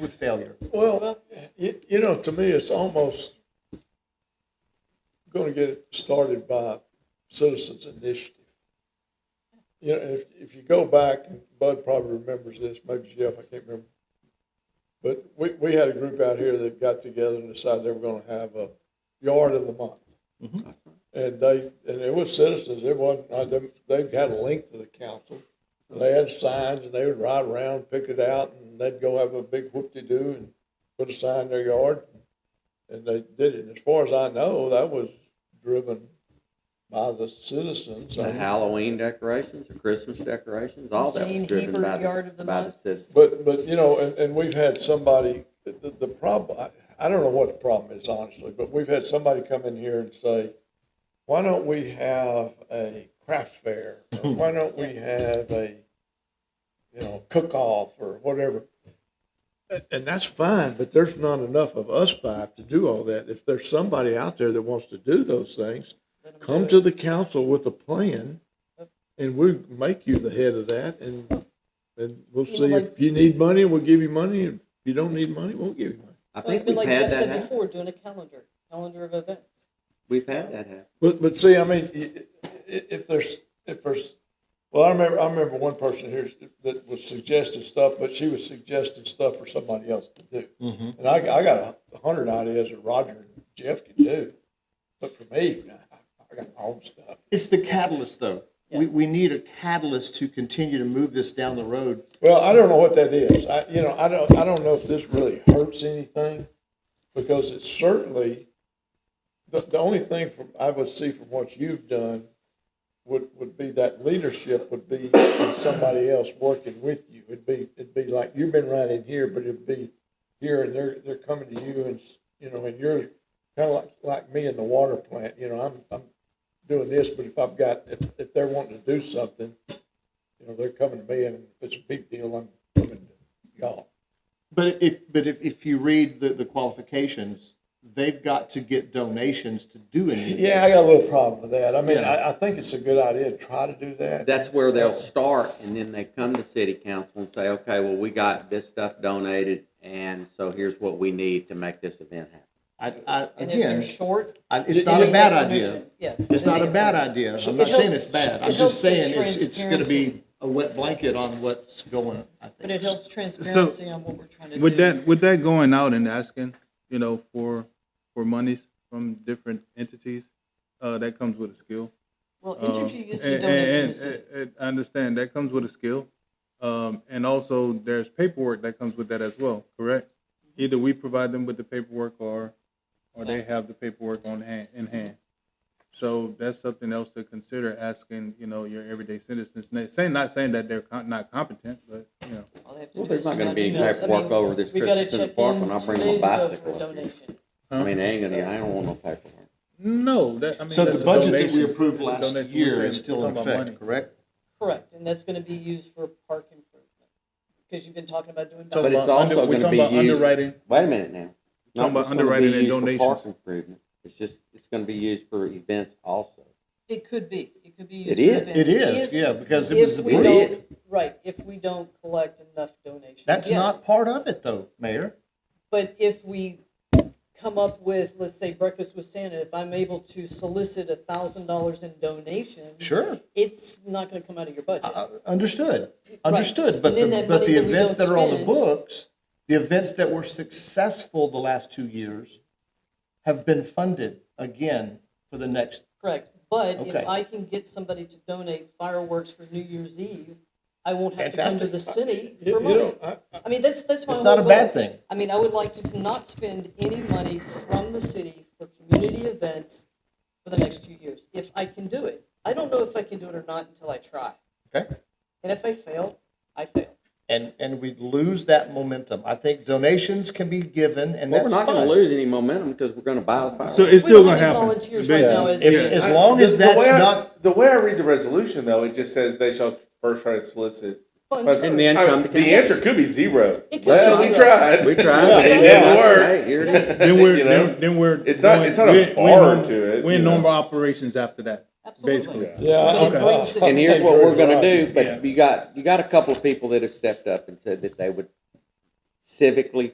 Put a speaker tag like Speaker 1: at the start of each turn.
Speaker 1: with failure.
Speaker 2: Well, you, you know, to me, it's almost going to get it started by citizens initiative. You know, if, if you go back, and Bud probably remembers this, maybe Jeff, I can't remember. But we, we had a group out here that got together and decided they were going to have a yard of the month. And they, and it was citizens, it wasn't, uh, they, they had a link to the council. And They had signs and they would ride around, pick it out, and they'd go have a big whoop-de-doo and put a sign in their yard. And they did it. And as far as I know, that was driven by the citizens.
Speaker 3: The Halloween decorations, the Christmas decorations, all that was
Speaker 4: Gene
Speaker 3: driven
Speaker 4: Hebert,
Speaker 3: by
Speaker 4: Yard
Speaker 3: the,
Speaker 4: of the
Speaker 3: by the
Speaker 4: Month.
Speaker 3: citizens.
Speaker 2: But, but, you know, and, and we've had somebody, the, the problem, I, I don't know what the problem is honestly, but we've had somebody come in here and say, why don't we have a craft fair? Or Why don't we have a, you know, cook-off or whatever? And, and that's fine, but there's not enough of us five to do all that. If there's somebody out there that wants to do those things, come to the council with a plan and we'll make you the head of that and, and we'll see if you need money, we'll give you money. If you don't need money, we'll give you money.
Speaker 3: I
Speaker 4: Well,
Speaker 3: think we've
Speaker 4: Like
Speaker 3: had
Speaker 4: Jeff
Speaker 3: that
Speaker 4: said
Speaker 3: happen.
Speaker 4: before, doing a calendar, calendar of events.
Speaker 3: We've had that happen.
Speaker 2: But, but see, I mean, i- i- if there's, if there's, well, I remember, I remember one person here that was suggesting stuff, but she was suggesting stuff for somebody else to do. And I, I got a hundred ideas that Roger and Jeff can do, but for me, I got my own stuff.
Speaker 1: It's the catalyst, though. We, we need a catalyst to continue to move this down the road.
Speaker 2: Well, I don't know what that is. I, you know, I don't, I don't know if this really hurts anything, because it certainly, the, the only thing from, I would see from what you've done would, would be that leadership would be somebody else working with you. It'd be, it'd be like, you've been right in here, but it'd be here, and they're, they're coming to you, and, s- you know, and you're kind of like, like me in the water plant, you know, I'm, I'm doing this, but if I've got, if, if they're wanting to do something, you know, they're coming to me and if it's a big deal, I'm coming to y'all.
Speaker 1: But if, but if, if you read the, the qualifications, they've got to get donations to do any of this.
Speaker 2: Yeah, I got a little problem with that. I mean, I, I think it's a good idea to try to do that.
Speaker 3: That's where they'll start and then they come to city council and say, okay, well, we got this stuff donated and so here's what we need to make this event happen.
Speaker 1: I, I,
Speaker 4: And if they're
Speaker 1: again,
Speaker 4: short.
Speaker 1: I- it's
Speaker 4: then
Speaker 1: not
Speaker 4: they
Speaker 1: a bad
Speaker 4: get
Speaker 1: idea.
Speaker 4: permission. Yeah.
Speaker 1: It's
Speaker 4: then
Speaker 1: not
Speaker 4: they
Speaker 1: a
Speaker 4: get
Speaker 1: bad
Speaker 4: permission.
Speaker 1: idea.
Speaker 4: It
Speaker 1: I'm not saying
Speaker 4: helps-
Speaker 1: it's bad. I'm
Speaker 4: it helps
Speaker 1: just saying
Speaker 4: the
Speaker 1: it's, it's gonna be
Speaker 4: transparency.
Speaker 1: a wet blanket on what's going, on, I
Speaker 4: But it
Speaker 1: think.
Speaker 4: helps transparency on what we're trying to do.
Speaker 5: With that, with that going out and asking, you know, for, for monies from different entities, uh, that comes with a skill.
Speaker 4: Well,
Speaker 5: Um,
Speaker 1: Oh,
Speaker 4: Entergy used to
Speaker 1: eh,
Speaker 5: and-
Speaker 4: donate to the
Speaker 5: and-
Speaker 4: city.
Speaker 5: and- and I understand, that comes with a skill. Um, and also there's paperwork that comes with that as well, correct? Either we provide them with the paperwork or, or they have the paperwork on hand, in hand. So that's something else to consider asking, you know, your everyday citizens. And they say, not saying that they're co- not competent, but, you know.
Speaker 4: All they have to
Speaker 3: Well,
Speaker 4: do
Speaker 3: there's
Speaker 4: is
Speaker 3: not
Speaker 4: send
Speaker 3: gonna
Speaker 4: out
Speaker 3: be any
Speaker 4: emails. I
Speaker 3: paperwork
Speaker 4: mean,
Speaker 3: over this
Speaker 4: we gotta
Speaker 3: Christmas in the
Speaker 4: check
Speaker 3: park
Speaker 4: in
Speaker 3: when I
Speaker 4: two
Speaker 3: bring my
Speaker 4: days ago for a
Speaker 3: bicycle up here.
Speaker 4: donation.
Speaker 3: I mean, I ain't gonna, I don't want no paperwork.
Speaker 5: No, that, I mean.
Speaker 1: So
Speaker 5: that's
Speaker 1: the
Speaker 5: a
Speaker 1: budget that we
Speaker 5: donation.
Speaker 1: approved
Speaker 5: That's a
Speaker 1: last
Speaker 5: donation. We're
Speaker 1: year
Speaker 5: saying
Speaker 1: is still in
Speaker 5: talking about
Speaker 1: effect,
Speaker 5: money.
Speaker 1: correct?
Speaker 4: Correct, and that's gonna be used for park improvement, because you've been talking about doing.
Speaker 5: Talking
Speaker 3: But
Speaker 4: that.
Speaker 3: it's
Speaker 5: about under-
Speaker 3: also
Speaker 5: we're
Speaker 3: gonna
Speaker 5: talking
Speaker 3: be
Speaker 5: about
Speaker 3: used.
Speaker 5: Underwriting,
Speaker 3: Wait a minute now. Not
Speaker 5: Talking about
Speaker 3: just gonna be
Speaker 5: underwriting and
Speaker 3: used for
Speaker 5: donations.
Speaker 3: Park improvement. It's just, it's gonna be used for events also.
Speaker 4: It could be, it could be
Speaker 3: It
Speaker 4: used. for
Speaker 3: is.
Speaker 4: events
Speaker 1: It is,
Speaker 4: if-
Speaker 1: yeah, because it was,
Speaker 4: If we
Speaker 3: It
Speaker 1: the-
Speaker 4: don't, right, if we don't collect enough donations.
Speaker 1: that's
Speaker 4: yeah.
Speaker 1: not part of it though, Mayor.
Speaker 4: But if we come up with, let's say Breakfast with Santa, if I'm able to solicit a thousand dollars in donations.
Speaker 1: Sure.
Speaker 4: It's not gonna come out of your budget.
Speaker 1: Uh, Understood, understood, but,
Speaker 4: And then
Speaker 1: the-
Speaker 4: that
Speaker 1: but
Speaker 4: money
Speaker 1: the
Speaker 4: that we
Speaker 1: events
Speaker 4: don't
Speaker 1: that are on the
Speaker 4: spend-
Speaker 1: books, the events that were successful the last two years have been funded again for the next,
Speaker 4: Correct, but
Speaker 1: Okay.
Speaker 4: if I can get somebody to donate fireworks for New Year's Eve, I won't have to come to
Speaker 1: Fantastic.
Speaker 4: the city
Speaker 2: You-
Speaker 4: for
Speaker 2: you
Speaker 4: money.
Speaker 2: know, I-
Speaker 4: I mean, that's, that's my
Speaker 1: It's
Speaker 4: whole
Speaker 1: not a bad
Speaker 4: goal.
Speaker 1: thing.
Speaker 4: I mean, I would like to not spend any money from the city for community events for the next two years, if I can do it. I don't know if I can do it or not until I try,
Speaker 1: okay?
Speaker 4: and if I fail, I fail.
Speaker 1: And, and we lose that momentum. I think donations can be given and
Speaker 3: Well, we're
Speaker 1: that's
Speaker 3: not gonna
Speaker 1: fine.
Speaker 3: lose any momentum because we're gonna buy the fireworks.
Speaker 5: so it's
Speaker 4: We
Speaker 5: still
Speaker 4: don't
Speaker 5: gonna
Speaker 4: have
Speaker 5: happen.
Speaker 4: volunteers right now,
Speaker 5: basically.
Speaker 4: is-
Speaker 1: If,
Speaker 4: Yeah.
Speaker 1: as long as
Speaker 6: The- the
Speaker 1: that's
Speaker 6: way I-
Speaker 1: not,
Speaker 6: The way I read the resolution, though, it just says they shall first try to solicit.
Speaker 4: Funds
Speaker 6: But
Speaker 4: first.
Speaker 3: And then
Speaker 6: I mean,
Speaker 3: come to
Speaker 6: the
Speaker 3: council.
Speaker 6: answer could be zero.
Speaker 4: It could
Speaker 6: Well,
Speaker 4: be
Speaker 6: we
Speaker 4: zero.
Speaker 6: tried.
Speaker 3: We tried, but it
Speaker 6: It
Speaker 3: didn't
Speaker 6: didn't
Speaker 3: work.
Speaker 6: work.
Speaker 3: Hey, here it is.
Speaker 5: Then we're,
Speaker 6: You know?
Speaker 5: then, then we're.
Speaker 6: It's not-
Speaker 5: going-
Speaker 6: it's not a
Speaker 5: we're- we're
Speaker 6: bar
Speaker 5: norm-
Speaker 6: to it,
Speaker 5: We're
Speaker 6: you
Speaker 5: in
Speaker 6: know?
Speaker 5: normal operations after that,
Speaker 4: Absolutely.
Speaker 5: basically.
Speaker 2: Yeah.
Speaker 4: But it brings the-
Speaker 3: And here's what we're gonna do,
Speaker 5: Yeah.
Speaker 3: but you got, you got a couple of people that have stepped up and said that they would civically